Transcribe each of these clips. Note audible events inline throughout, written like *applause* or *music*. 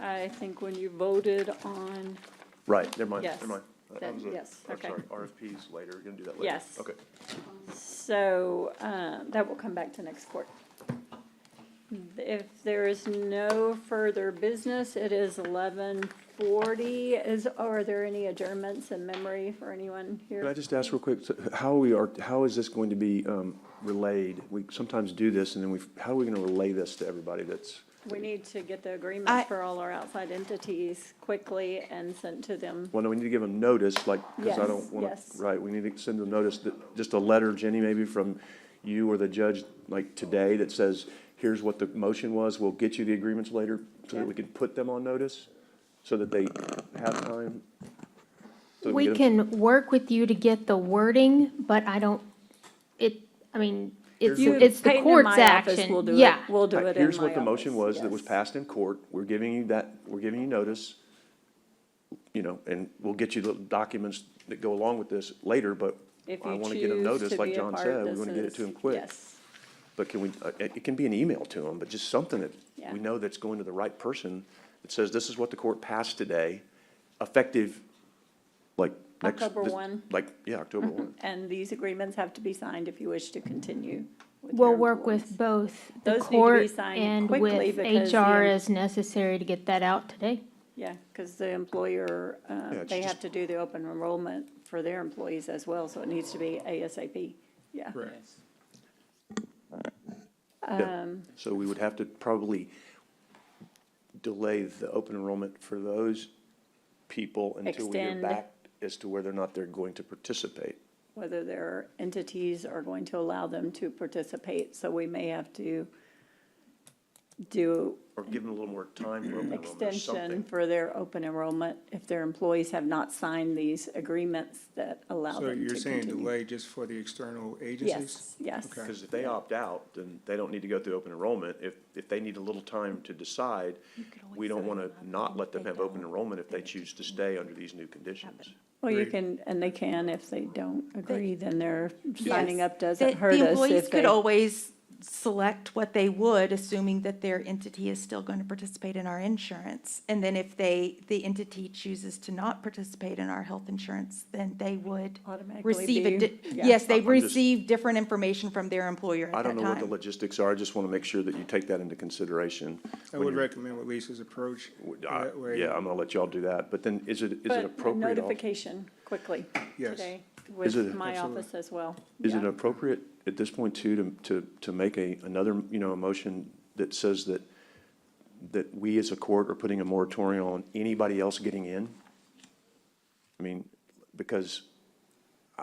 I think when you voted on, Right, never mind, Yes, never mind. That- that that- was a- yes, I'm okay. sorry, RFPs later, we're gonna do that later. Yes. Okay, so, um, that will come back to next court. If there is no further business, it is eleven forty. Is, are there any adjournments in memory for anyone here? can I just ask real quick, so how we are, how is this going to be um, relayed? We sometimes do this, and then we, how are we gonna relay this to everybody that's, We need to get the I- agreements for all our outside entities quickly and sent to them. well, no, we need to give them notice, like, because I Yes, don't want yes. to, right, we need to send them notice, that just a letter, Jenny, maybe from you or the judge, like, today, that says, here's what the motion was, we'll get you the agreements later, so that we can put them on notice, so that they have time? so that We get them- can work with you to get the wording, but I don't, it, I mean, it's, You- it's the Peyton in court's my office action. will do it. Yeah. We'll do Right, it in Here's my what the motion office, was that was yes. passed in court. We're giving you that, we're giving you notice. You know, and we'll get you the documents that go along with this later, but If I you want to get them choose notice, to like be a John part, said, we this want to get it is- to them quick. Yes, But can we, uh, it it can be an email to them, but just something that Yeah. we know that's going to the right person that says, this is what the court passed today, effective, like, next. October this- 1. Like, yeah, October one. and these agreements have to be signed if you wish to continue. with We'll your work with employees. both the Those need to be court signed and quickly with because the HR em- as necessary to get that out today. Yeah, because the employer, uh, it's they have just- to do the open enrollment for their employees as well, so it needs to be ASAP, yeah. Yeah. So we would have to probably delay the open enrollment for those people until we hear Extend. back as to whether or not they're going to participate. Whether their entities are going to allow them to participate, so we may have to do Or give them a little more time for open enrollment or extension something. for their open enrollment if their employees have not signed these agreements that allow So them to you're saying continue. delay just for the external agencies? Yes, yes. Okay. Because if they opt out, then they don't need to go through open enrollment. If, if they need a little time to decide, we don't want to not let them have open enrollment if they choose to stay under these new conditions. Well, you Agreed. can, and they can, if they don't agree, then their signing Yes. up The- doesn't hurt The us employees if could they. always select what they would, assuming that their entity is still going to participate in our insurance. And then if they, the entity chooses to not participate in our health insurance, then they would Automatically receive, a be- di- yeah. yes, they I'm just- receive different information from their employer at I that don't time. know what the logistics are. I just want to make sure that you take that into consideration. I when would you're- recommend what Lisa's approach. I- that way- uh, Yeah, I'm going to let y'all do that. But then is it, is it But appropriate? also- notification quickly Yes. today it- with my Absolutely. office as well. Is it Yeah. appropriate at this point too, to, to, to make a, another, you know, a motion that says that, that we as a court are putting a moratorium on anybody else getting in? I mean, because I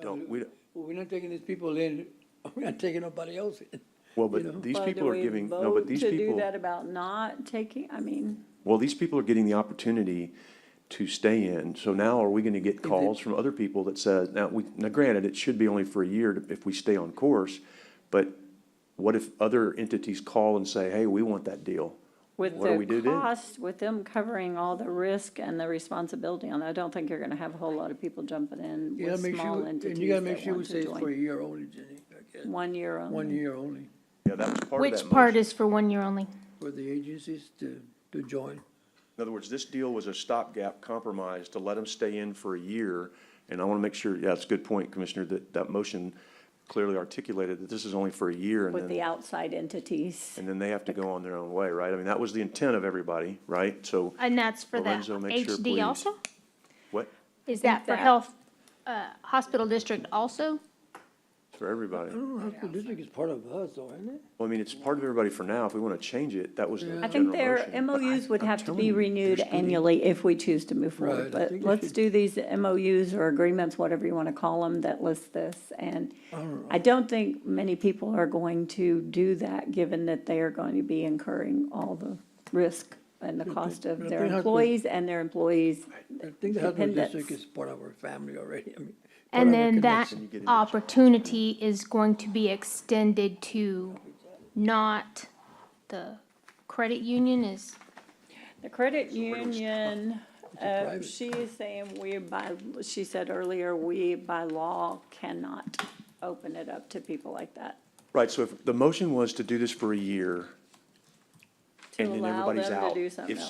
don't, we, don't- Well, We're not taking these people in, *laughs* we're not taking nobody else in. well, You know. but these Well, do people are we giving, no, but vote these To do people, that about not taking, I mean, well, these people are getting the opportunity to stay in. So now are we gonna get calls from other people that says, now, we, now granted, it should be only for a year to- if we stay on course, but what if other entities call and say, hey, we want that deal? with What do we do the then? cost, with them covering all the risk and the responsibility on, it, I don't think you're gonna have a whole lot of people jumping in You gotta with make small sure, and entities you gotta make that sure we want say to it's for a join. year only, Jenny, I guess. One year only. One year only Yeah, that was part of that Which part motion. is for one year only? for the agencies to, to join. In other words, this deal was a stopgap compromise to let them stay in for a year. And I want to make sure, yeah, it's a good point, Commissioner, that that motion clearly articulated that this is only for a year and With the then, outside entities. and then they have to go on their own way, right? I mean, that was the intent of everybody, right? So And that's for the Lorenzo, make sure, please. HD also? what, Is that for that- health, uh, hospital district also? for everybody? I don't know, hospital district is part of us, though, isn't it? Well, I mean, it's part of everybody for now. If we want to change it, that was the I general think motion. their But I- MOUs would I'm have to telling be you, there's renewed gonna be- annually if we choose to move forward. Right, I But think we let's should- do these MOUs or agreements, whatever you want to call them, that list this. And I don't think many people are going to do that, given that they are going to be incurring all the risk and the cost of But their they have to- employees and their employees. I think the hospital Dependents. district is part of our family already, I mean. part And of our then that connection. you get into- opportunity is going to be extended to not the credit union is, The credit union, a uh, private- she is saying we by, she said earlier, we by law cannot open it up to people like that. Right, so if the motion was to do this for a year, To and then allow everybody's them to out. do something If